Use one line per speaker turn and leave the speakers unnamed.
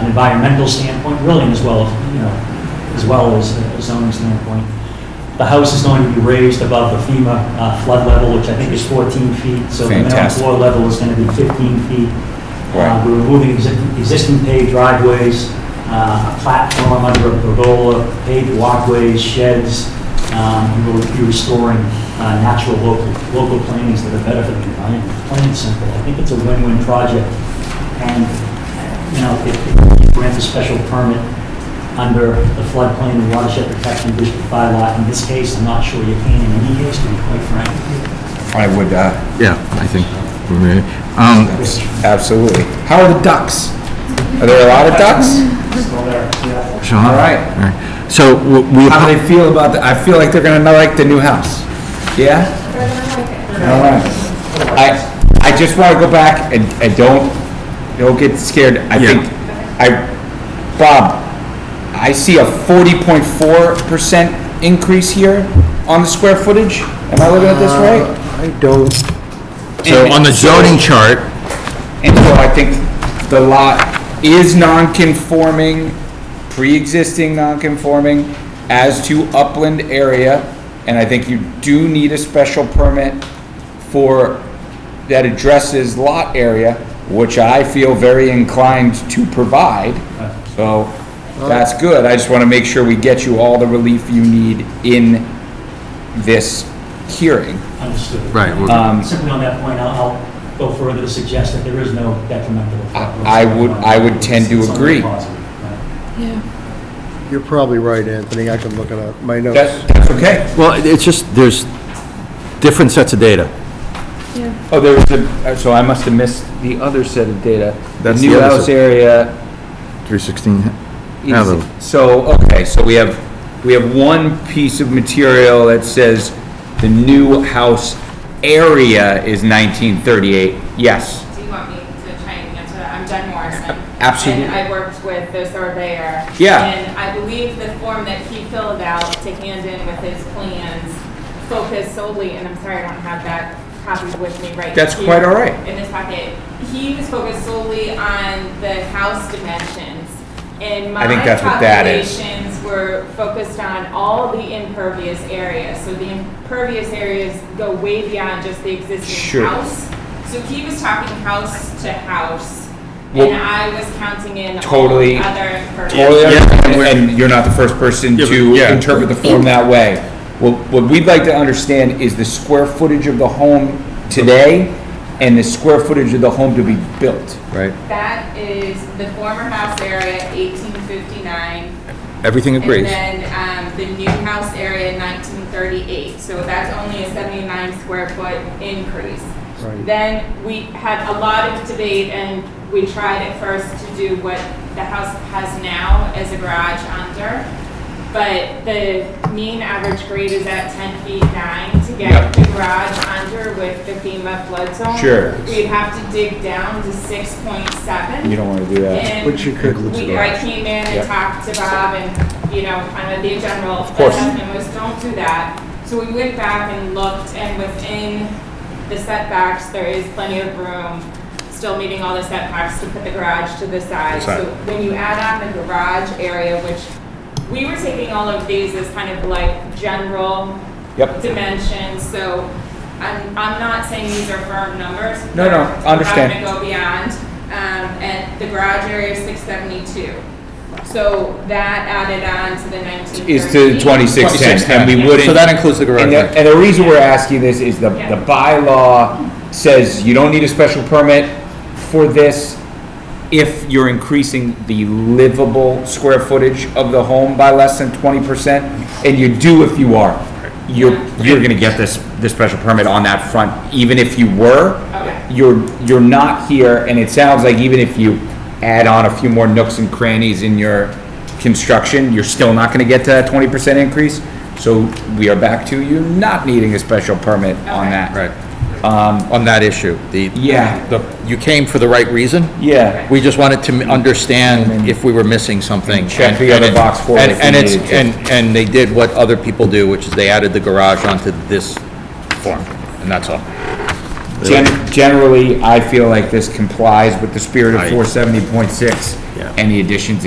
an environmental standpoint, really, as well, as you know, as well as a zoning standpoint. The house is going to be raised above the FEMA uh, flood level, which I think is 14 feet. So the minimum
Fantastic.
floor level is going to be 15 feet.
Right.
Uh, We're removing exi- existing paved driveways, uh, a platform under a pergola, paved walkways, sheds. Um, and We'll be restoring uh, natural local, local plantings that are better for the environment. Plain and simple. I think it's a win-win project. And, you know, if if you grant a special permit under the floodplain and watershed protection district bylaw, in this case, I'm not sure you can in any case, to be quite frank.
I would, uh,
Yeah, I think, we may- um,
absolutely. How are the ducks? Are there a lot of ducks?
Still there, yeah.
Sean?
All right.
All right. So we- we,
How do they feel about, the- I feel like they're gonna not like the new house. Yeah? All right. I, I just wanna go back and, and don't, don't get scared. I
Yeah.
think, I, Bob, I see a forty point four percent increase here on the square footage. Am I looking at this right?
I don't,
so on the zoning chart,
And so I think the lot is non-conforming, pre-existing non-conforming as to upland area. And I think you do need a special permit for, that addresses lot area, which I feel very inclined to provide. So that's good. I just want to make sure we get you all the relief you need in this hearing.
Understood.
right, well,
Um,
Simply on that point, I'll, I'll go further to suggest that there is no detrimental effect.
I- I would- I would tend to
It's only
agree.
positive, right?
you're probably right, Anthony, I can look it up, my
That-
notes.
That's okay.
well, it's just, there's different sets of data.
Oh, there was a, uh, so I must have missed the other set of data. The
That's the
new
other
house
set.
area
316, Yeah,
is,
the-
so, okay, so we have, we have one piece of material that says the new house area is 1938. Yes,
Do you want me to try and answer that? I'm Jen Morrison.
absolutely.
And I worked with the surveyor.
Yeah.
And I believe the form that he filled out to hand in with his plans focused solely, and I'm sorry I don't have that copy with me right
That's
here
quite all right.
In this packet. He was focused solely on the house dimensions. And my
I think that's what that is.
calculations were focused on all the impervious areas. So the impervious areas go way beyond just the existing
Sure.
house. So he was talking house to house,
Well-
and I was counting in
Totally.
all other impervious.
Totally,
Yeah,
understand,
and we're-
and you're not the first person
Yeah, but-
to
yeah.
interpret the form that way. What, what we'd like to understand is the square footage of the home today and the square footage of the home to be built.
Right.
That is the former house area, 1859,
Everything
and
agrees.
then um, the new house area, 1938. So that's only a 79 square foot increase.
Right.
Then we had a lot of debate, and we tried at first to do what the house has now as a garage under. But the mean average grade is at ten feet nine to
Yep.
get the garage under with the FEMA flood zone.
Sure.
We'd have to dig down to six point seven.
You don't want to do that.
And
Which you could.
we, I came in
Yep.
and talked to Bob and, you know, kind of the general
course.
assessment was, don't do that. So we went back and looked, and within the setbacks, there is plenty of room, still meeting all the setbacks to put the garage to the side.
Side.
So when you add on the garage area, which we were taking all of these as kind of like general
Yep.
dimensions, so I'm, I'm not saying these are firm numbers.
No, no,
We're
understand.
not gonna go beyond, um, and the garage area is six seventy-two. So that added on to the nineteen thirty.
Is to 2610, and we wouldn't.
So that includes the garage.
And the,
right?
and the reason we're asking this is the,
Yeah.
the bylaw says you don't need a special permit for this if you're increasing the livable square footage of the home by less than twenty percent, and you do if you are. You're, you're gonna get this, this special permit on that front, even if you were.
Okay.
You're, you're not here, and it sounds like even if you add on a few more nooks and crannies in your construction, you're still not gonna get to that twenty percent increase. So we are back to you not needing a special permit on
Okay.
that.
Right. Um, On that issue, the.
Yeah.
the- You came for the right reason.
Yeah.
We just wanted to m- understand if we were missing something.
Check the other
And-
box for it if
And and
we
it's,
needed to.
and, and they did what other people do, which is they added the garage onto this form, and that's all.
Gen- Generally, I feel like this complies with the spirit of
Right.
four seventy point six
Yeah.
any additions